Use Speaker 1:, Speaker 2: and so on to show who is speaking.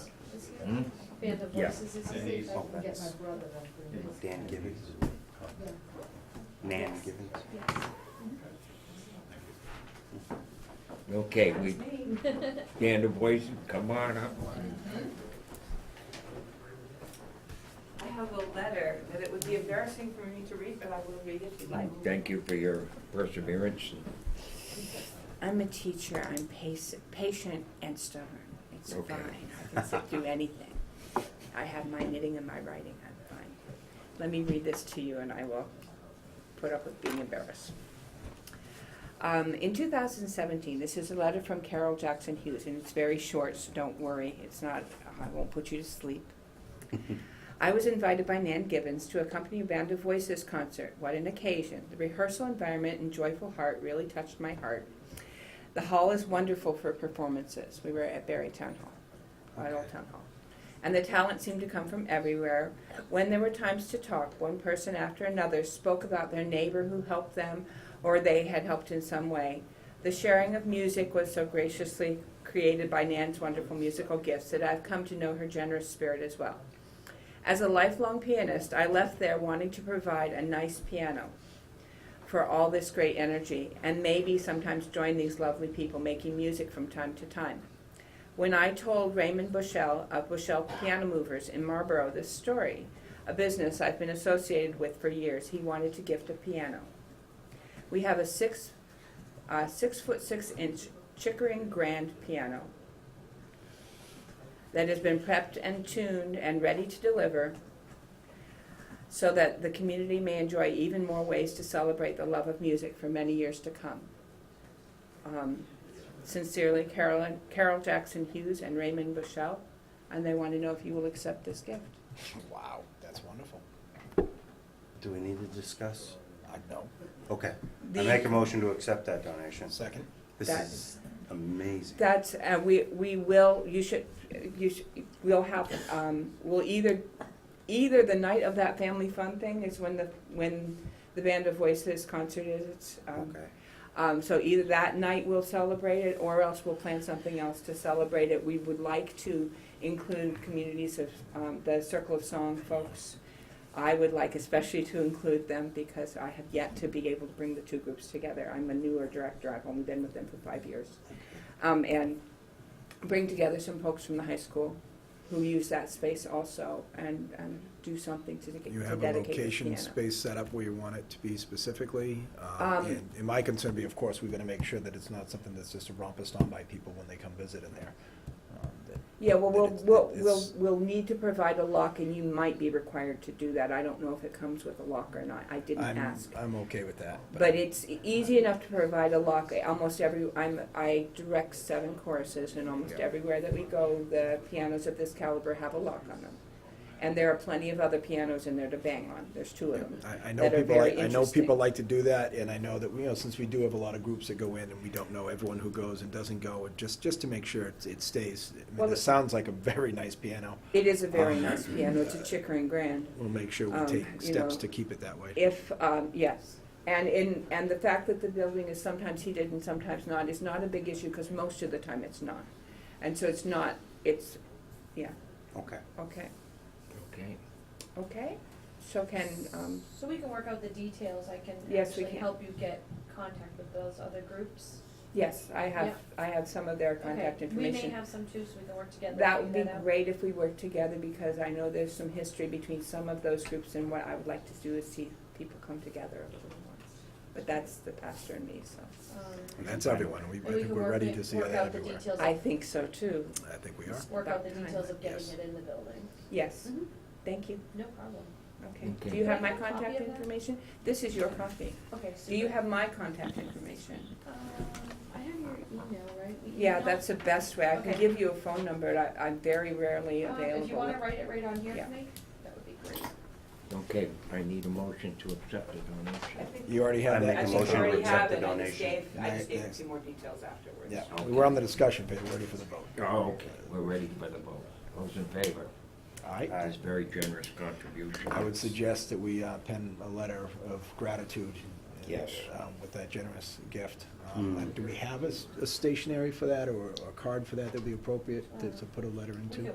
Speaker 1: Hmm?
Speaker 2: Band of
Speaker 3: Yeah.
Speaker 2: Voices is,
Speaker 4: And
Speaker 2: if
Speaker 4: these-
Speaker 2: I can get my brother up for this.
Speaker 5: Dan Gibbons,
Speaker 2: Yeah.
Speaker 5: Nan Gibbons.
Speaker 2: Yes.
Speaker 1: Okay, we,
Speaker 2: That's me.
Speaker 1: Dan Du Bois, come on up.
Speaker 6: I have a letter that it would be embarrassing for me to read, but I will read it if you'd like.
Speaker 1: Thank you for your perseverance.
Speaker 7: I'm a teacher. I'm pace, patient and stubborn. It's
Speaker 1: Okay.
Speaker 7: fine. I can sit through anything. I have my knitting and my writing. I'm fine. Let me read this to you, and I will put up with being embarrassed. Um, in 2017, this is a letter from Carol Jackson Hughes, and it's very short, so don't worry. It's not. I won't put you to sleep. I was invited by Nan Gibbons to accompany a Band of Voices concert. What an occasion! The rehearsal environment and joyful heart really touched my heart. The hall is wonderful for performances. We were at Barry Town Hall, at Old Town Hall. And the talent seemed to come from everywhere. When there were times to talk, one person after another spoke about their neighbor who helped them or they had helped in some way. The sharing of music was so graciously created by Nan's wonderful musical gifts that I've come to know her generous spirit as well. As a lifelong pianist, I left there wanting to provide a nice piano for all this great energy and maybe sometimes join these lovely people making music from time to time. When I told Raymond Bushell of Bushell Piano Movers in Marlboro this story, a business I've been associated with for years, he wanted to gift a piano. We have a six, uh, six foot six inch Chickering grand piano that has been prepped and tuned and ready to deliver so that the community may enjoy even more ways to celebrate the love of music for many years to come. Um, Sincerely, Carolyn, Carol Jackson Hughes and Raymond Bushell, and they want to know if you will accept this gift.
Speaker 3: Wow, that's wonderful.
Speaker 5: Do we need to discuss?
Speaker 3: I know.
Speaker 5: Okay. I
Speaker 7: The-
Speaker 5: make a motion to accept that donation.
Speaker 3: Second.
Speaker 5: This
Speaker 7: That-
Speaker 5: is amazing.
Speaker 7: That's, uh, we, we will, you should, you should, we'll have, um, we'll either, either the night of that family fun thing is when the, when the Band of Voices concert is, it's, um,
Speaker 5: Okay.
Speaker 7: um, so either that night we'll celebrate it, or else we'll plan something else to celebrate it. We would like to include communities of, um, the Circle of Song folks. I would like especially to include them, because I have yet to be able to bring the two groups together. I'm a newer director, I've only been with them for five years. Um, and bring together some folks from the high school who use that space also, and, and do something to to dedicate
Speaker 8: You
Speaker 7: the
Speaker 8: have a
Speaker 7: piano.
Speaker 8: location space set up where you want it to be specifically. um,
Speaker 7: Um,
Speaker 8: And and my concern be, of course, we've got to make sure that it's not something that's just rompest on by people when they come visit in there. um, that-
Speaker 7: Yeah, well,
Speaker 8: that
Speaker 7: we'll,
Speaker 8: it's-
Speaker 7: we'll,
Speaker 8: that
Speaker 7: we'll,
Speaker 8: it's-
Speaker 7: we'll need to provide a lock, and you might be required to do that. I don't know if it comes with a lock or not. I didn't
Speaker 8: I'm-
Speaker 7: ask.
Speaker 8: I'm okay with that.
Speaker 7: But it's e- easy enough to provide a lock. Almost every, I'm, I direct seven choruses, and almost
Speaker 8: Yeah.
Speaker 7: everywhere that we go, the pianos of this caliber have a lock on them. And there are plenty of other pianos in there to bang on. There's two of them.
Speaker 8: I, I know
Speaker 7: that are
Speaker 8: people,
Speaker 7: very
Speaker 8: like- I know
Speaker 7: interesting.
Speaker 8: people like to do that, and I know that, you know, since we do have a lot of groups that go in, and we don't know everyone who goes and doesn't go, and just, just to make sure it, it stays. I
Speaker 7: Well,
Speaker 8: mean,
Speaker 7: it-
Speaker 8: this sounds like a very nice piano.
Speaker 7: It is a very
Speaker 8: Um,
Speaker 7: nice piano. It's a Chickering Grand.
Speaker 8: We'll make sure
Speaker 7: Um,
Speaker 8: we
Speaker 7: you
Speaker 8: take steps
Speaker 7: know,
Speaker 8: to keep it that way.
Speaker 7: If, um, yes, and in, and the fact that the building is sometimes heated and sometimes not is not a big issue, because most of the time it's not. And so it's not, it's, yeah,
Speaker 5: Okay.
Speaker 7: okay,
Speaker 1: Okay.
Speaker 7: okay, so can, um,
Speaker 2: So we can work out the details, I can
Speaker 7: Yes,
Speaker 2: actually
Speaker 7: we can.
Speaker 2: help you get contact with those other groups.
Speaker 7: yes, I have,
Speaker 2: Yeah.
Speaker 7: I have some of their contact
Speaker 2: Okay,
Speaker 7: information.
Speaker 2: We may have some too, so we can work together. and
Speaker 7: That would
Speaker 2: figure
Speaker 7: be
Speaker 2: out.
Speaker 7: great if we worked together, because I know there's some history between some of those groups, and what I would like to do is see people come together a little more. But that's the pastor and me, so,
Speaker 2: Um,
Speaker 8: And that's everyone. We,
Speaker 2: And
Speaker 8: I
Speaker 2: we
Speaker 8: think
Speaker 2: can
Speaker 8: we're
Speaker 2: work
Speaker 8: ready
Speaker 2: it-
Speaker 8: to see
Speaker 2: work
Speaker 8: that
Speaker 2: out the
Speaker 8: everywhere.
Speaker 2: details
Speaker 7: I
Speaker 2: of-
Speaker 7: think so too,
Speaker 8: I think we are.
Speaker 2: Work out the
Speaker 7: About
Speaker 2: details of getting
Speaker 8: yes.
Speaker 2: it in the building.
Speaker 7: yes,
Speaker 2: Mhm.
Speaker 7: thank you.
Speaker 2: No problem.
Speaker 7: Okay, do
Speaker 1: Okay.
Speaker 7: you have
Speaker 2: Do I
Speaker 7: my
Speaker 2: have a copy
Speaker 7: contact
Speaker 2: of that?
Speaker 7: information? This is your copy.
Speaker 2: Okay, super.
Speaker 7: Do you have my contact information?
Speaker 2: Um, I have your email, Um, right? We
Speaker 7: Yeah,
Speaker 2: emailed?
Speaker 7: that's the best way. I can
Speaker 2: Okay.
Speaker 7: give you a phone number, I, I'm very rarely
Speaker 2: Um,
Speaker 7: available.
Speaker 2: If you wanna write it right on here
Speaker 7: Yeah.
Speaker 2: for me, that would be great.
Speaker 1: Okay, I need a motion to accept the donation.
Speaker 8: You already have
Speaker 5: I
Speaker 8: that.
Speaker 5: make a
Speaker 7: I
Speaker 8: in
Speaker 7: think
Speaker 8: motion.
Speaker 5: motion to
Speaker 7: you already
Speaker 5: accept
Speaker 7: have
Speaker 5: the
Speaker 7: it, I just
Speaker 5: donation.
Speaker 7: gave, I
Speaker 8: Next,
Speaker 7: just gave you
Speaker 8: next.
Speaker 7: some more details afterwards.
Speaker 8: Yeah, we were on the discussion phase, we're ready for the vote.
Speaker 1: Oh, okay, we're ready for the vote. Those in favor?
Speaker 8: All right.
Speaker 5: Aye.
Speaker 1: This very generous contribution.
Speaker 8: I would suggest that we uh, pen a letter of gratitude. uh,
Speaker 1: Yes.
Speaker 8: um, With that generous gift. Um,
Speaker 5: Hmm.
Speaker 8: Do we have a s- a stationery for that, or a card for that that'd be appropriate to to put a letter into?